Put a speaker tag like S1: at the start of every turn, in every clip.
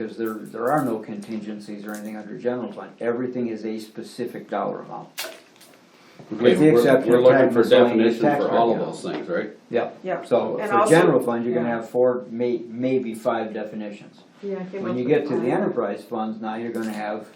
S1: Because there, there are no contingencies or anything under general fund. Everything is a specific dollar amount.
S2: Okay,
S1: With the
S2: we're,
S1: exception
S2: we're
S1: of
S2: looking
S1: tax
S2: for
S1: miscellaneous
S2: definitions
S1: tax
S2: for all of
S1: rate.
S2: those things, right?
S1: Yep.
S3: Yep.
S1: So
S3: And
S1: for
S3: also-
S1: general fund, you're gonna
S3: yeah.
S1: have four, may, maybe five definitions.
S3: Yeah, I came
S1: When
S3: up
S1: you
S3: with
S1: get to the
S3: five.
S1: enterprise funds, now you're gonna have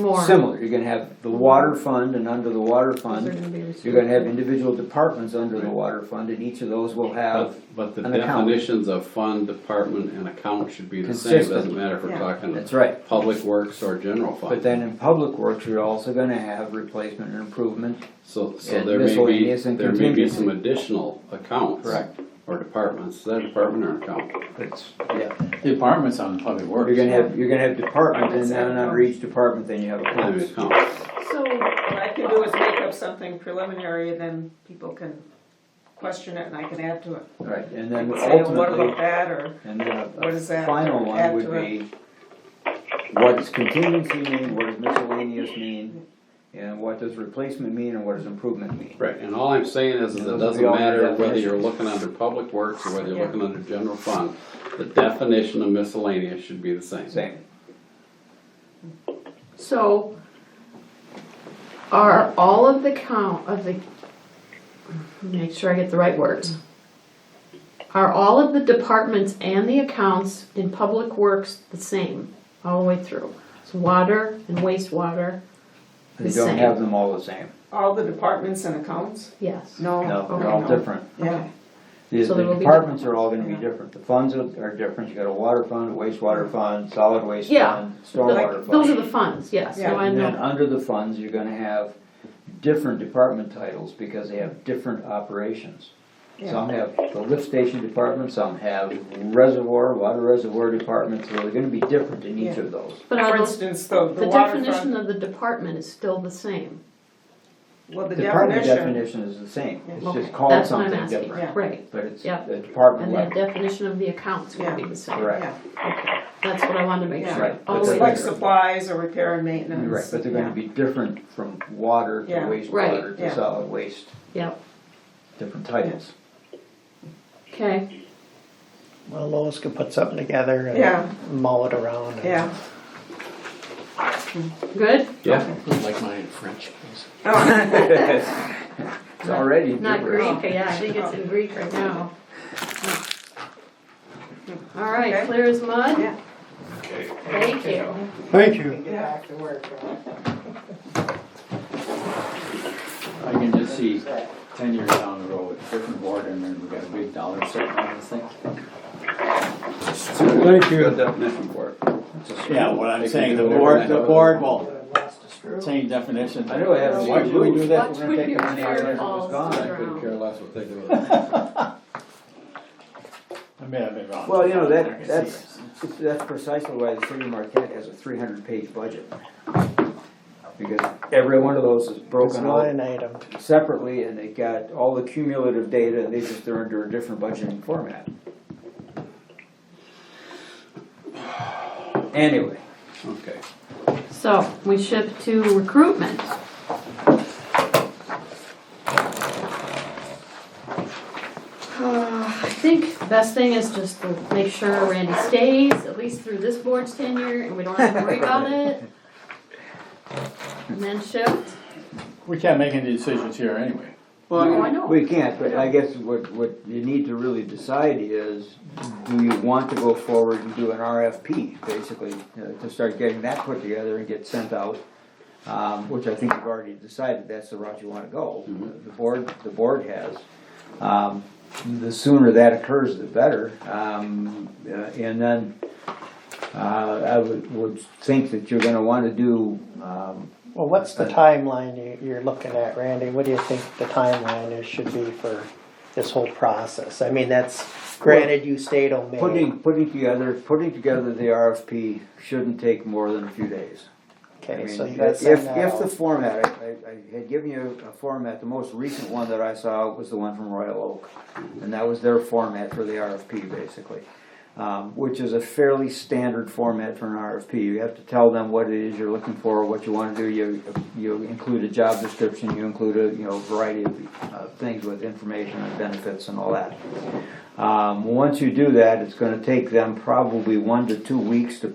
S3: More.
S1: similar. You're gonna have the water fund and under the water
S3: Those are
S1: fund,
S3: gonna be
S1: you're gonna have
S3: restricted.
S1: individual departments under the water fund and each of those will have,
S2: But, but the
S1: Uh, an account.
S2: definitions of fund, department, and account should be the same,
S1: Consistent.
S2: doesn't matter if we're
S3: Yeah.
S2: talking
S1: that's right.
S2: public works or general
S1: But
S2: fund.
S1: then in public works, you're also gonna have replacement and improvement.
S2: So, so
S1: and
S2: there may be,
S1: miscellaneous and
S2: there may be
S1: contingency.
S2: some additional accounts.
S1: Correct.
S2: Or departments, is that a department or an account?
S1: It's, yeah.
S4: The apartment's on public works.
S1: You're gonna have, you're gonna have departments and then under each department, then you have a
S2: Maybe
S1: class.
S2: account.
S5: So what I can do is make up something preliminary, and then people can question it and I can add to it.
S1: Right, and
S5: I
S1: then
S5: can say, "Oh, what
S1: ultimately,
S5: about that, or
S1: and then a-
S5: what
S1: a
S5: is that?
S1: final one
S5: Add
S1: would
S5: to it.
S1: be, what does contingency mean, what does miscellaneous mean? And what does replacement mean and what does improvement mean?
S2: Right, and all I'm saying is, is
S1: Those
S2: it
S1: would
S2: doesn't
S1: be all
S2: matter whether
S1: definitions.
S2: you're looking under public works or whether you're
S5: Yeah.
S2: looking under general fund, the definition of miscellaneous should be the same.
S1: Same,
S3: So, are all of the count of the, make sure I get the right words. Are all of the departments and the accounts in public works the same, all the way through? So water and wastewater,
S1: they
S3: The
S1: don't
S3: same.
S1: have them all the same,
S5: all the departments and accounts?
S3: yes.
S5: No.
S1: no,
S5: okay,
S1: they're all
S5: no.
S1: different.
S5: Yeah,
S1: The
S3: Oh, So
S1: the
S3: there will be
S1: departments are all gonna be
S5: Yeah.
S1: different, the funds are are different, you got a water fund, a wastewater fund, solid waste
S3: Yeah.
S1: fund, stormwater
S3: Like,
S1: fund.
S3: Those are the funds, yes,
S5: Yeah.
S3: no, I
S1: And then
S3: know,
S1: under the funds, you're gonna have different department titles because they have different operations. Some have the lift station department, some have reservoir, water reservoir department, so they're gonna be different in each
S5: Yeah.
S1: of those.
S3: but
S5: for
S3: are those,
S5: instance, the, the
S3: the
S5: water
S3: definition
S5: fund,
S3: of the department is still the same,
S5: well, the
S1: Department
S5: definition,
S1: definition is the same, it's
S3: Okay,
S1: just called
S3: that's what I'm
S1: something
S3: asking.
S1: different,
S5: Yeah.
S3: right?
S1: but it's
S3: Yeah.
S1: the department
S3: And the
S1: level,
S3: definition of the accounts would be
S5: Yeah.
S3: the same,
S1: Correct.
S5: yeah,
S3: that's what I wanted to make
S5: Yeah.
S3: sure,
S1: Right.
S3: all
S1: That's
S3: the
S5: it's
S3: way
S1: right.
S5: like
S3: through.
S5: supplies or repair and maintenance.
S1: right, but they're gonna
S5: Yeah.
S1: be different from water to
S5: Yeah.
S1: wastewater to
S5: yeah.
S1: solid waste,
S3: Yep,
S1: different titles.
S3: okay.
S6: Well, Lois could put something together
S5: Yeah.
S6: and mull it around. and-
S5: Yeah.
S3: Good?
S2: Yeah,
S4: Like mine in French, please.
S5: Oh,
S1: It's already
S3: Not
S1: gibberish.
S3: Greek, yeah, I think it's in Greek right now. All right,
S5: Okay.
S3: clear as mud?
S5: yeah.
S3: Thank you.
S6: Thank you.
S5: Get back to work.
S4: I can just see ten years down the road, different board, and then we got a big dollar set on this thing.
S6: Thank
S2: good
S6: you.
S2: definition for it.
S4: Yeah, what I'm saying, the
S2: They can do
S4: board,
S2: whatever
S4: the
S2: they
S4: board will, same definition.
S1: I know I have-
S4: Why should we do that?
S3: Watch
S4: We're
S3: when
S4: gonna take
S3: your
S4: our money out of
S3: chair
S4: there.
S3: falls to
S1: gone,
S3: the
S2: I couldn't
S3: ground.
S2: care less what they do with it.
S4: I may have been wrong.
S1: Well, you know,
S4: I can see
S1: that, that's,
S4: it.
S1: that's precisely why the city of Marquette has a three hundred page budget. Because every one of those is
S6: It's
S1: broken out
S6: line item.
S1: separately and they got all the cumulative data, and they just, they're under a different budgeting format. Anyway,
S2: Okay.
S3: So, we shift to recruitment. Uh, I think the best thing is just to make sure Randy stays, at least through this board's tenure, and we don't have to worry about it. And then shift,
S4: We can't make any decisions here anyway.
S3: no, I know.
S1: we can't, but I guess what, what you need to really decide is, do you want to go forward and do an RFP, basically, uh, to start getting that put together and get sent out? um, which I think you've already decided that's the route you want to go.
S3: Mm-hmm.
S1: The board, the board has. Um, The sooner that occurs, the better. Um, uh, And then uh, I would, would think that you're going to want to do, um,
S6: Well, what's the timeline you- you're looking at, Randy? What do you think the timeline is, should be for this whole process? I mean, that's, granted, you stayed on May.
S1: putting, putting together, putting together the RFP shouldn't take more than a few days. I
S6: Okay,
S1: mean,
S6: so you gotta
S1: If,
S6: send that
S1: if the
S6: out.
S1: format, I, I- I had given you a format, the most recent one that I saw was the one from Royal Oak. And that was their format for the RFP, basically, um, which is a fairly standard format for an RFP. You have to tell them what it is you're looking for, what you wanna do, you, you include a job description, you include a, you know, variety of, uh, things with information and benefits and all that. Um, once you do that, it's gonna take them probably one to two weeks to